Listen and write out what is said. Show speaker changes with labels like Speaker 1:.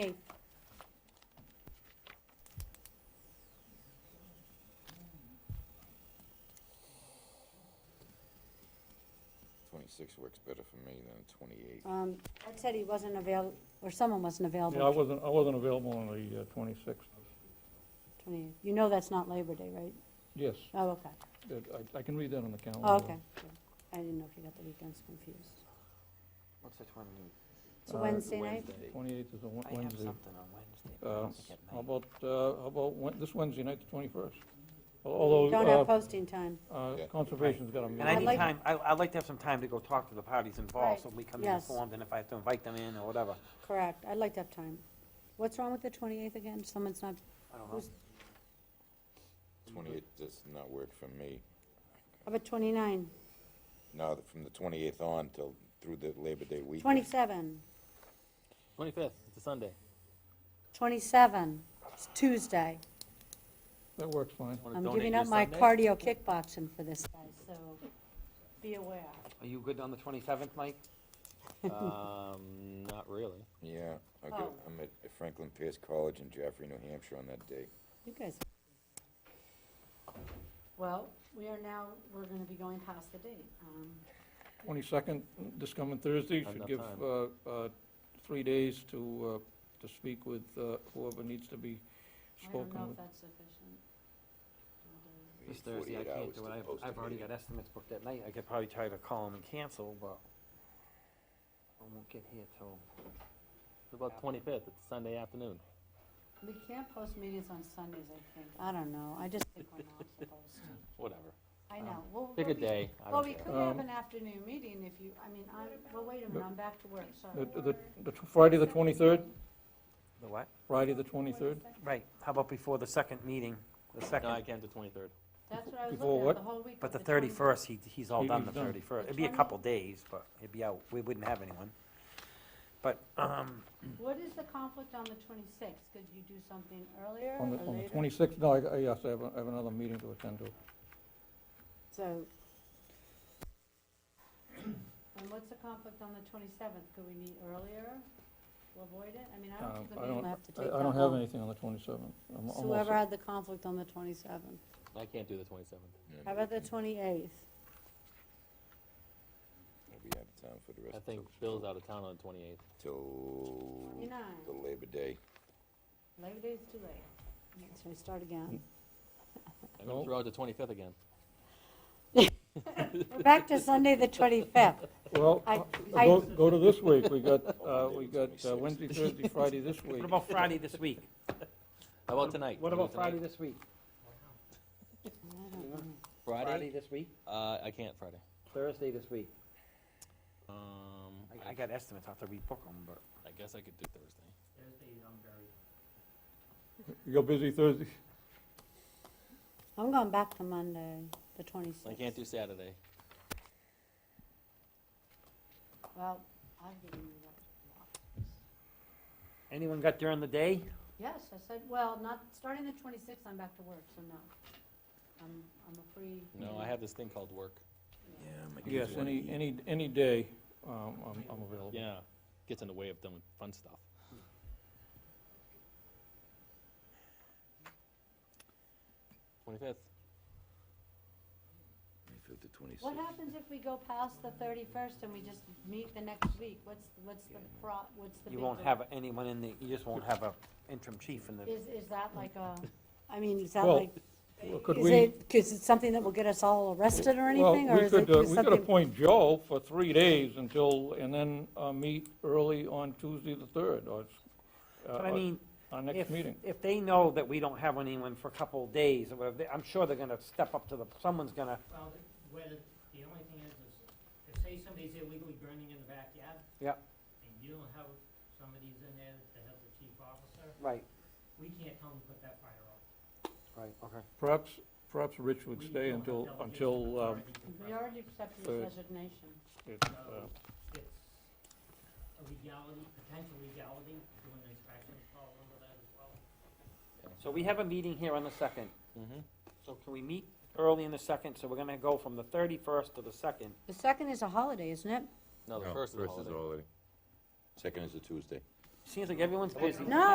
Speaker 1: Okay.
Speaker 2: Twenty-six works better for me than twenty-eight.
Speaker 1: Um, Ed said he wasn't avail, or someone wasn't
Speaker 3: Yeah, I
Speaker 1: available.
Speaker 3: wasn't, I wasn't available on the uh, twenty-sixth.
Speaker 1: 20 You know that's not Labor Day, right?
Speaker 3: Yes,
Speaker 1: Oh, okay.
Speaker 3: that- I, I can read that on the calendar.
Speaker 1: Oh, okay. Good. I didn't know if you got the weekends confused.
Speaker 4: What's the twenty?
Speaker 1: It's a
Speaker 3: Uh,
Speaker 1: Wednesday night?
Speaker 3: Twenty-eighth is a Wed-
Speaker 4: I have
Speaker 3: Wednesday.
Speaker 4: something on Wednesday. but I
Speaker 3: Uh,
Speaker 4: don't think it
Speaker 3: How
Speaker 4: matters.
Speaker 3: about, uh, how about Wed- this Wednesday night, the twenty-first?
Speaker 1: Don't have
Speaker 3: Although,
Speaker 1: posting time.
Speaker 3: uh, uh,
Speaker 2: Yeah.
Speaker 3: Conservation's got a
Speaker 4: And I
Speaker 1: I'd
Speaker 3: meeting.
Speaker 4: need
Speaker 1: like-
Speaker 4: time, I, I'd like to have some time to go talk to the parties involved, so
Speaker 1: Right.
Speaker 4: we come
Speaker 1: Yes.
Speaker 4: informed, and if I have to invite them in or whatever.
Speaker 1: Correct. I'd like to have time. What's wrong with the 28th again? Someone's not,
Speaker 4: I don't know.
Speaker 1: who's,
Speaker 2: Twenty-eight does not work for me.
Speaker 1: how about 29?
Speaker 2: No, the- from the twenty-eighth on till, through the Labor Day weekend.
Speaker 1: 27?
Speaker 5: Twenty-fifth, it's a Sunday.
Speaker 1: 27? It's Tuesday.
Speaker 3: That works fine.
Speaker 5: Wanna
Speaker 1: I'm
Speaker 5: donate
Speaker 1: giving
Speaker 5: your
Speaker 1: up my
Speaker 5: Sunday?
Speaker 1: cardio kickboxing for this guy, so be aware.
Speaker 4: Are you good on the twenty-seventh, Mike?
Speaker 5: Um, not really.
Speaker 2: Yeah, I go,
Speaker 1: Oh.
Speaker 2: I'm at Franklin Pierce College in Jaffrey, New Hampshire on that day.
Speaker 1: You guys. Well, we are now, we're gonna be going past the date. Um,
Speaker 3: Twenty-second, this coming Thursday,
Speaker 5: Not
Speaker 3: should
Speaker 5: enough
Speaker 3: give
Speaker 5: time.
Speaker 3: uh, uh, three days to, uh, to speak with uh, whoever needs to be
Speaker 1: I don't know
Speaker 3: spoken
Speaker 1: if
Speaker 3: with.
Speaker 1: that's sufficient.
Speaker 2: We
Speaker 4: This
Speaker 2: need
Speaker 4: Thursday, I
Speaker 2: 48
Speaker 4: can't
Speaker 2: hours
Speaker 4: do
Speaker 2: to
Speaker 4: it, I've,
Speaker 2: post a
Speaker 4: I've already
Speaker 2: meeting.
Speaker 4: got estimates booked that night, I could probably try to call them and cancel, but I won't get here till,
Speaker 5: What about twenty-fifth? It's a Sunday afternoon.
Speaker 1: We can't post meetings on Sundays, I think. I don't know, I just think we're not supposed to.
Speaker 5: Whatever.
Speaker 1: I know, well.
Speaker 5: Pick a
Speaker 1: well, we-
Speaker 5: day. I
Speaker 1: Well,
Speaker 5: don't
Speaker 1: we
Speaker 5: care.
Speaker 1: could have
Speaker 3: Um,
Speaker 1: an afternoon meeting if you, I mean, I'm, well, wait a minute, I'm back to work, sorry.
Speaker 3: The, the- the Friday, the twenty-third,
Speaker 4: the what?
Speaker 3: Friday, the twenty-third?
Speaker 4: Right, how about before the second meeting, the
Speaker 5: No, I
Speaker 4: second,
Speaker 5: can't do twenty-third.
Speaker 1: That's what I was
Speaker 3: Before
Speaker 1: looking at,
Speaker 3: what?
Speaker 1: the whole week.
Speaker 4: but
Speaker 1: of
Speaker 4: the
Speaker 1: 20
Speaker 4: thirty-first, he, he's all
Speaker 3: He-
Speaker 4: done the
Speaker 3: he's done.
Speaker 4: thirty-first.
Speaker 1: The
Speaker 4: It'd be a
Speaker 1: 20?
Speaker 4: couple days, but it'd be out, we wouldn't have anyone. But, um,
Speaker 1: What is the conflict on the twenty-sixth? Could you do something earlier
Speaker 3: On
Speaker 1: or
Speaker 3: the, on the
Speaker 1: later?
Speaker 3: twenty-sixth, no, I, I- yes, I have, a- I have another meeting to attend to.
Speaker 1: So. And what's the conflict on the twenty-seventh? Could we meet earlier to avoid it? I mean, I don't
Speaker 3: Um,
Speaker 1: think the
Speaker 3: I
Speaker 1: meeting
Speaker 3: don't,
Speaker 1: will have to
Speaker 3: I
Speaker 1: take that long.
Speaker 3: I don't have anything on the 27th.
Speaker 1: So
Speaker 3: I'm almost-
Speaker 1: Whoever had the conflict on the twenty-seventh.
Speaker 5: I can't do the twenty-seventh.
Speaker 2: Yeah,
Speaker 1: How about the
Speaker 2: I'll
Speaker 1: twenty-eighth?
Speaker 2: be out of town for the
Speaker 5: I
Speaker 2: rest,
Speaker 5: think Bill's out of town on the twenty-eighth.
Speaker 2: till the
Speaker 1: Twenty-nine.
Speaker 2: Labor Day.
Speaker 1: Labor Day's too late. So we start again.
Speaker 5: I'm gonna
Speaker 3: No.
Speaker 5: throw out the twenty-fifth again.
Speaker 1: We're back to Sunday, the twenty-fifth.
Speaker 3: Well,
Speaker 1: I-
Speaker 3: uh,
Speaker 1: I-
Speaker 3: go, go to this week, we got, uh,
Speaker 2: Monday
Speaker 3: we
Speaker 2: the
Speaker 3: got uh,
Speaker 2: 26th.
Speaker 3: Wednesday, Thursday, Friday this week.
Speaker 4: what about Friday this week?
Speaker 5: How about tonight?
Speaker 4: What
Speaker 5: Can we
Speaker 4: about
Speaker 5: do tonight?
Speaker 4: Friday this week? Friday
Speaker 5: Friday?
Speaker 4: this week,
Speaker 5: Uh, I can't Friday.
Speaker 4: Thursday this week.
Speaker 5: Um,
Speaker 4: I, I got estimates, I have to rebook them, but.
Speaker 5: I guess I could do Thursday.
Speaker 3: You're busy Thursday,
Speaker 1: I'm going back to Monday, the twenty-sixth.
Speaker 5: I can't do Saturday.
Speaker 1: Well, I've given you that.
Speaker 4: Anyone got during the day?
Speaker 1: Yes, I said, well, not, starting the twenty-sixth, I'm back to work, so no. I'm, I'm a free.
Speaker 5: No,
Speaker 4: Mm-hmm.
Speaker 5: I have this thing called work.
Speaker 3: yes, any, any, any day, um, I'm, I'm available.
Speaker 5: Yeah, gets in the way of doing fun stuff. Twenty-fifth.
Speaker 2: Fifth to twenty-sixth.
Speaker 1: What happens if we go past the thirty-first and we just meet the next week? What's, what's the pro, what's the big?
Speaker 4: You won't
Speaker 1: deal?
Speaker 4: have anyone in the, you just won't have a interim chief in the,
Speaker 1: Is, is that like a, I mean, is that
Speaker 3: Well,
Speaker 1: like,
Speaker 3: well, could
Speaker 1: is
Speaker 3: we-
Speaker 1: it, is it something that will get us all arrested or
Speaker 3: Well,
Speaker 1: anything,
Speaker 3: we
Speaker 1: or is
Speaker 3: could,
Speaker 1: it
Speaker 3: uh,
Speaker 1: just
Speaker 3: We could
Speaker 1: something?
Speaker 3: appoint Joe for three days until, and then, uh, meet early on Tuesday the 3rd, or, it's, uh,
Speaker 4: but I
Speaker 3: our-
Speaker 4: mean,
Speaker 3: our
Speaker 4: if,
Speaker 3: next meeting.
Speaker 4: if they know that we don't have anyone for a couple of days or whatever, they- I'm sure they're gonna step up to the, someone's gonna,
Speaker 6: Well, the- whether, the only thing is, is if say somebody's illegally burning in the backyard.
Speaker 4: Yep.
Speaker 6: And you don't have somebody's in there to help the chief officer,
Speaker 4: right,
Speaker 6: we can't tell them to put that fire out.
Speaker 4: right, okay.
Speaker 3: Perhaps, perhaps Rich would stay until, until, um,
Speaker 1: We already accepted
Speaker 3: Third.
Speaker 1: his resignation.
Speaker 3: it's, uh,
Speaker 6: So it's a legality, potential legality, doing the inspections, call over that as well.
Speaker 4: So we have a meeting here on the second,
Speaker 5: Mm-hmm.
Speaker 4: so can we meet early in the second? So we're gonna go from the thirty-first to the second.
Speaker 1: The second is a holiday, isn't it?
Speaker 5: No, the first is a holiday.
Speaker 2: Second is a Tuesday.
Speaker 4: Seems like everyone's busy.
Speaker 1: No,